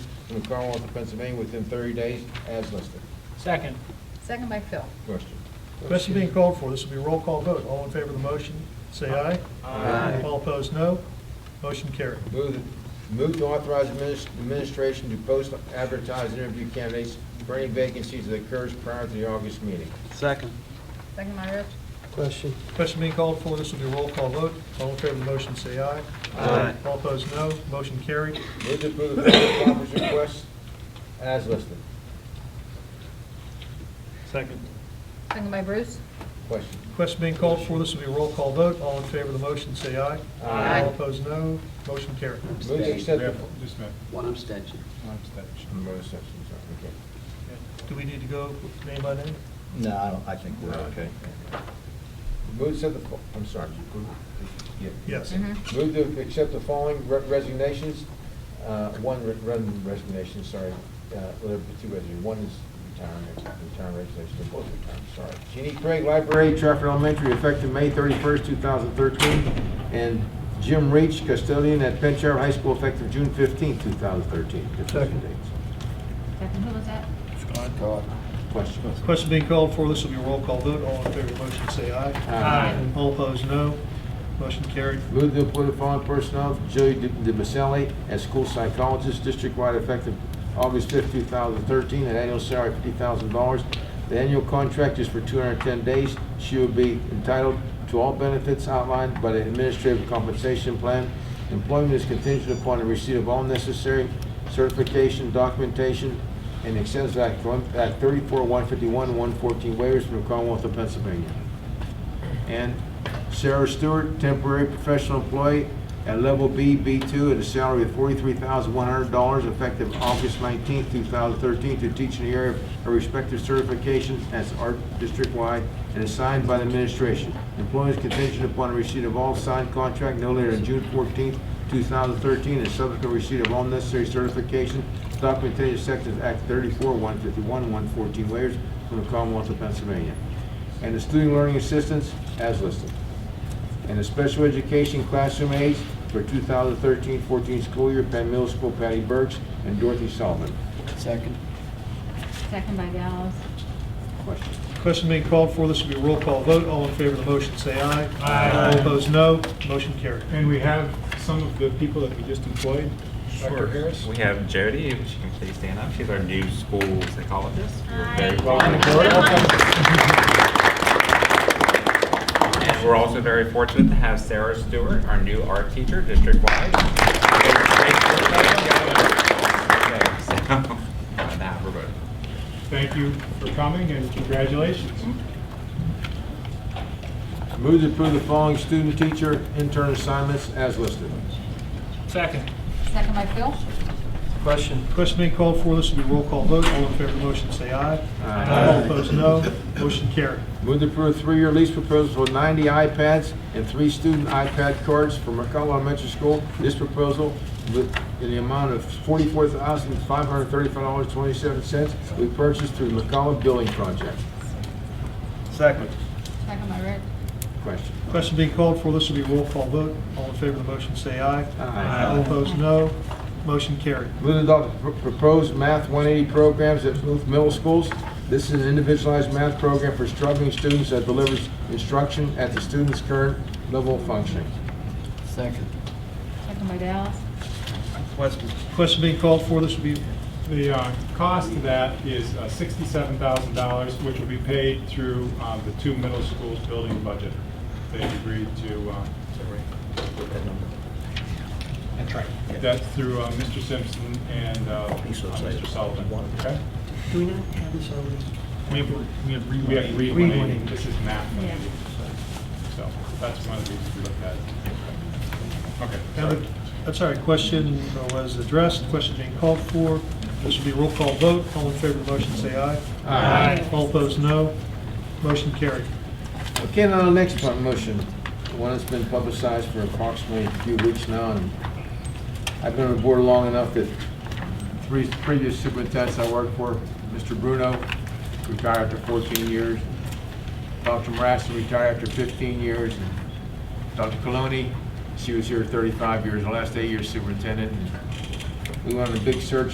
from the Commonwealth of Pennsylvania within 30 days as listed. Second. Second by Phil. Question. Question being called for, this will be a roll call vote. All in favor of the motion, say aye. Aye. All opposed, no. Motion carried. Move, move to authorize adminis- administration to post advertised interview candidates for any vacancies that occurs prior to the August meeting. Second. Second by Rich. Question. Question being called for, this will be a roll call vote. All in favor of the motion, say aye. Aye. All opposed, no. Motion carried. Move to approve the village office request as listed. Second. Second by Bruce. Question. Question being called for, this will be a roll call vote. All in favor of the motion, say aye. Aye. All opposed, no. Motion carried. Move to accept. the- Just a minute, One abstention. one abstention. I'm going to section, sorry, okay. Do we need to go name by name? No, I don't, I think we're okay. Move to, the fo- I'm sorry. Yeah. Yes. Move to accept the following re- resignations. Uh, One re- one resignation, sorry, Uh, well, there are two resignations. One is retirement, retirement resignation, they're both retirement, sorry. Jeannie Craig, Library, Trafford Elementary, effective May 31st, 2013. And Jim Reach, custodian at Penn Trafford High School, effective June 15th, 2013. Second. Second, who was that? Question? Question being called for, this will be a roll call vote. All in favor of the motion, say aye. All opposed, no. Motion carried. Move to appoint the following personnel, Julie DeMaselli as school psychologist, district-wide effective August 5, 2013, at annual salary of $50,000. The annual contract is for 210 days. She will be entitled to all benefits outlined by the administrative compensation plan. Employment is contingent upon the receipt of all necessary certification, documentation, and extends Act 1 Act 34, 151, 114 waivers from the Commonwealth of Pennsylvania. And Sarah Stewart, temporary professional employee at level B, B2, at a salary of $43,100, effective August 19, 2013, to teach in the area of her respective certification as art district-wide and assigned by the administration. Employment is contingent upon receipt of all signed contract no later than June 14, 2013, and subsequent receipt of all necessary certification, documentation, sections Act 34, 151, 114 waivers from the Commonwealth of Pennsylvania and the student learning assistants as listed. And the special education classroom aides for 2013-14 school year, Penn Middle School, Patty Burks and Dorothy Solomon. Second. Second by Gals. Question? Question being called for, this will be a roll call vote. All in favor of the motion, say aye. Aye. All opposed, no. Motion carried. And we have some of the people that we just employed, Dr. Sure. Harris. We have Jody, if she can please stand up. She's our new school psychologist. We're very Welcome, Jody. And we're also very fortunate to have Sarah Stewart, our new art teacher, district-wide. So, on that, we're voting. Thank you for coming and congratulations. Move to approve the following student teacher intern assignments as listed. Second. Second by Phil. Question. Question being called for, this will be a roll call vote. All in favor of the motion, say aye. All opposed, no. Motion carried. Move to approve three-year lease proposal for 90 iPads and three student iPad cards for McCullough Elementary School. This proposal with- in the amount of $44,535.27 we purchased through the McCullough Building Project. Second. Second by Rich. Question? Question being called for, this will be a roll call vote. All in favor of the motion, say aye. Aye. All opposed, no. Motion carried. Move to adopt the pr- proposed Math 180 programs at both middle schools. This is an individualized math program for struggling students that delivers instruction at the student's current level of functioning. Second. Second by Dallas. Question. Question being called for, this will be, The uh, cost of that is uh, $67,000, which will be paid through uh, the two middle schools' building budget. They agreed to, uh, That's right. that's through uh, Mr. Simpson and uh, uh, Mr. Sullivan. Okay? Do we not have this already? We have, we have We have Reed Reed 180. 180. This is math Yeah. 180. So that's one of the reasons we looked at. it. Okay, now sorry. the- that's all right, question was addressed. Question being called for, this will be a roll call vote. All in favor of the motion, say aye. Aye. All opposed, no. Motion carried. Okay, now the next one, motion, one that's been publicized for approximately a few weeks now, and I've been on the board long enough that three previous superintendents I worked for, Mr. Bruno, retired after 14 years, Dr. Marassi retired after 15 years, and Dr. Coloni, she was here 35 years, the last eight years superintendent. and We went on a big search